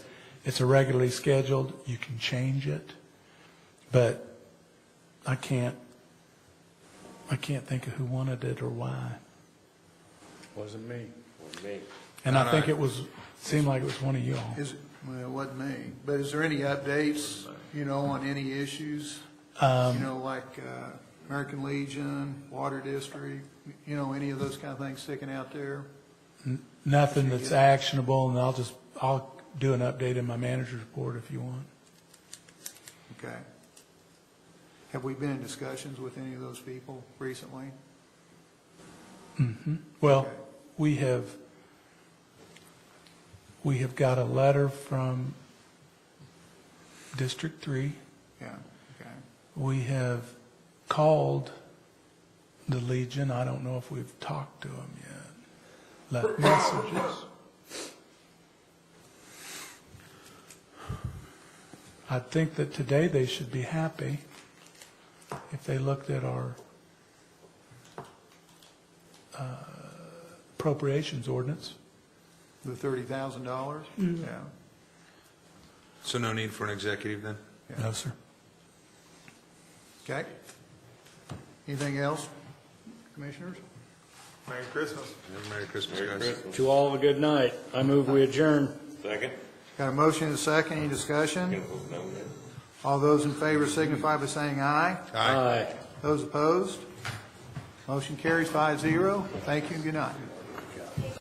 It's irregularly scheduled, you can change it, but I can't, I can't think of who wanted it or why. Wasn't me. Me. And I think it was, seemed like it was one of y'all. Is, well, it wasn't me, but is there any updates, you know, on any issues? You know, like uh, American Legion, Water District, you know, any of those kind of things sticking out there? Nothing that's actionable, and I'll just, I'll do an update in my manager's report if you want. Okay. Have we been in discussions with any of those people recently? Well, Okay. we have, we have got a letter from District Three. Yeah, okay. We have called the Legion. I don't know if we've talked to them yet, left messages. I think that today they should be happy if they looked at our uh, appropriations ordinance. The thirty thousand dollars? Yeah. So no need for an executive then? No, sir. Okay. Anything else, commissioners? Merry Christmas. Merry Christmas, Merry guys. Christmas. To all, a good night. I move we adjourn. Second? Got a motion and a second, any discussion? All those in favor signify by saying aye. Aye. Those opposed? Motion carries five zero. Thank you and good night.